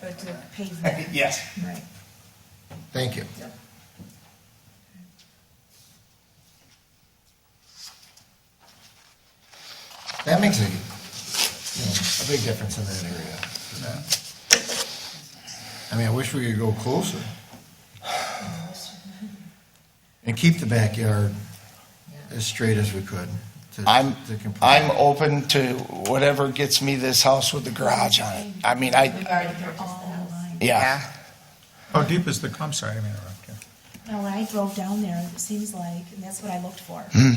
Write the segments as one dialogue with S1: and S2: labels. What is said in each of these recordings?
S1: but to pavement,
S2: Yes.
S1: right,
S3: Thank you.
S1: yep.
S3: That makes a, you know, a big difference in that area. I mean, I wish we could go closer. And keep the backyard as straight as we could. to-
S2: I'm,
S3: to comply.
S2: I'm open to whatever gets me this house with the garage on it. I mean,
S1: We've
S2: I,
S1: already purchased the house.
S2: yeah.
S4: How deep is the, I'm sorry, I didn't mean to interrupt you.
S1: Now, when I drove down there, it seems like, and that's what I looked for.
S2: Hmm.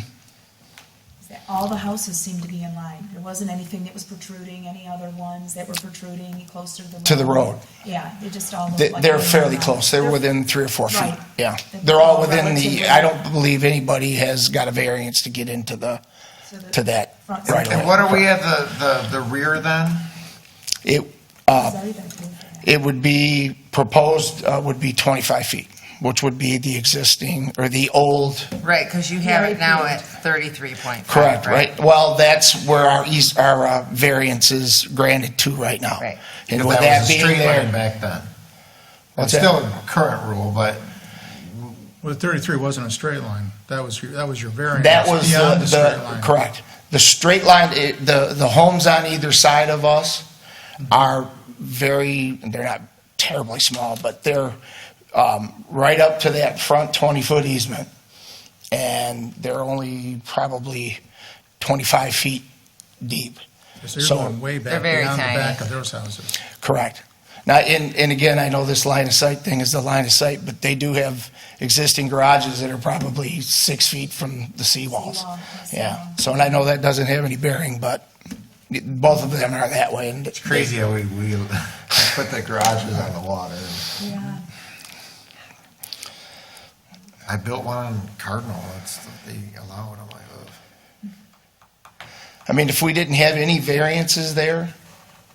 S1: Is that all the houses seemed to be in line. There wasn't anything that was protruding, any other ones that were protruding closer to the road.
S2: To the road.
S1: Yeah, they just all
S2: They-
S1: looked like.
S2: They're
S1: they were
S2: fairly
S1: in
S2: close. They're
S1: line.
S2: within three or four feet.
S1: Right.
S2: Yeah.
S1: They're
S2: They're all
S1: all
S2: within the,
S1: relatively-
S2: I don't believe anybody has got a variance to get into the,
S1: So the
S2: to that
S1: front
S2: right
S1: side
S2: away.
S5: And what are we at the, the, the rear then?
S2: It,
S1: has already been approved for that.
S2: it would be, proposed uh, would be 25 feet, which would be the existing, or the old
S6: Right, because you have it now at thirty-three point five.
S2: Correct, right? Well, that's where our east, our uh, variance is granted to right now.
S6: Right.
S2: And
S5: Because
S2: with
S5: that
S2: that
S5: was a
S2: being
S5: straight line
S2: there,
S5: back then.
S2: What's
S5: It's
S2: that?
S5: still a current rule, but
S4: Well, the 33 wasn't a straight line. That was, your that was your variance.
S2: that was
S4: beyond
S2: the,
S4: straight
S2: the,
S4: line.
S2: correct. The straight line, it- the, the homes on either side of us are very, they're not terribly small, but they're um, right up to that front 20-foot easement. And they're only probably 25 feet deep.
S4: So you're
S2: So-
S4: going way back
S6: They're very
S4: beyond the
S6: tiny.
S4: back of those houses.
S2: Correct. Now, and, and again, I know this line of sight thing is the line of sight, but they do have existing garages that are probably six feet from the seawalls.
S1: Seawall, yes,
S2: Yeah,
S1: seawall.
S2: so, and I know that doesn't have any bearing, but both of them are that way. And
S5: crazy how we, we put the garages on the water.
S1: Yeah,
S5: I built one on Cardinal, that's, they allowed, I'm like, ugh.
S2: I mean, if we didn't have any variances there,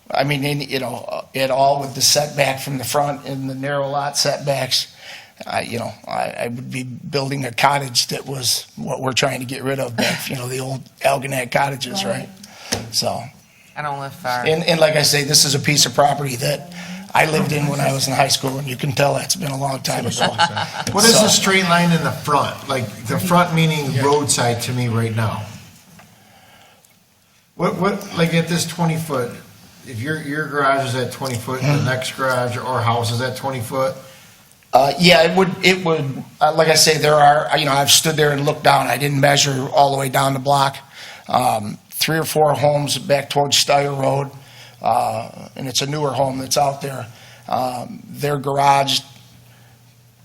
S2: I mean, any, you know, at all with the setback from the front and the narrow lot setbacks, I, you know, I, I would be building a cottage that was what we're trying to get rid of, back, you know, the old Algonac cottages, right? So,
S6: I don't live far.
S2: and, and like I say, this is a piece of property that I lived in when I was in high school, and you can tell that's been a long time ago.
S5: What is
S2: So-
S5: the straight line in the front? Like, the front meaning roadside to me right now. What, what, like at this twenty foot, if your, your garage is at twenty foot, the next garage or house is at twenty foot,
S2: Uh, yeah, it would, it would, uh, like I say, there are, you know, I've stood there and looked down. I didn't measure all the way down the block. Um, three or four homes back towards Steyer Road, uh, and it's a newer home that's out there. Um, their garage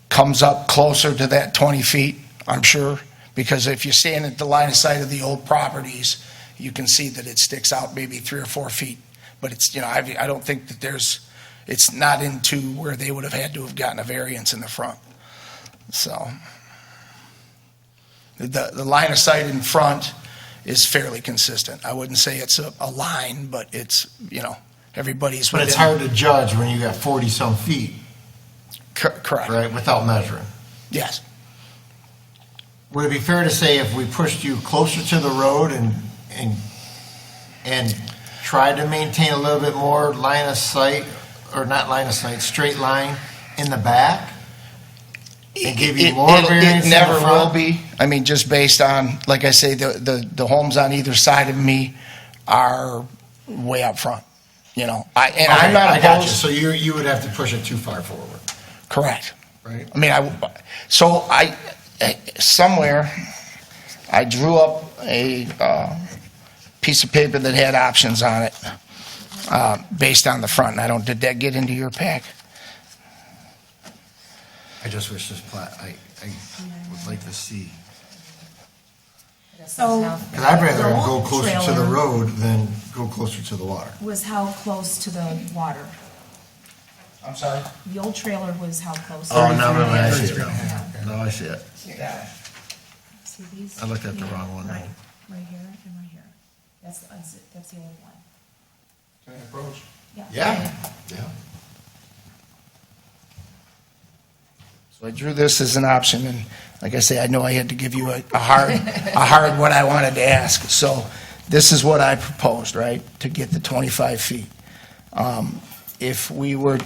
S2: comes up closer to that 20 feet, I'm sure, because if you stand at the line of sight of the old properties, you can see that it sticks out maybe three or four feet. But it's, you know, I, I don't think that there's, it's not into where they would have had to have gotten a variance in the front. So the, the line of sight in front is fairly consistent. I wouldn't say it's a, a line, but it's, you know, everybody's.
S5: but it's
S2: within-
S5: hard to judge when you got forty some feet,
S2: Cor- Correct,
S5: right, without measuring.
S2: yes.
S5: Would it be fair to say if we pushed you closer to the road and, and, and tried to maintain a little bit more line of sight, or not line of sight, straight line in the back? And give you
S2: It-
S5: more
S2: it'll-
S5: variance in the
S2: It never
S5: front?
S2: will be. I mean, just based on, like I say, the, the, the homes on either side of me are way out front, you know? I, and I'm
S5: Okay,
S2: not
S5: I got you.
S2: opposed,
S5: So you, you would have to push it too far forward,
S2: correct.
S5: right?
S2: I mean, I, so I, eh, somewhere, I drew up a uh, piece of paper that had options on it, uh, based on the front, and I don't, did that get into your pack?
S5: I just wish this plat, I, I would like to see.
S1: so
S5: Because I'd rather go closer to the
S1: Trailer.
S5: road than go closer to the water.
S1: was how close to the water?
S2: I'm sorry?
S1: The old trailer was how close?
S5: Oh, I
S4: see it.
S5: Now I see it.
S1: See these?
S5: I looked at the wrong one.
S1: Right, right here and right here. That's, the unzi- that's the only one. Can I approach?
S5: Yeah, yeah.
S2: So I drew this as an option, and like I say, I know I had to give you a a hard, a hard what I wanted to ask. So this is what I proposed, right, to get the 25 feet. Um, If we were to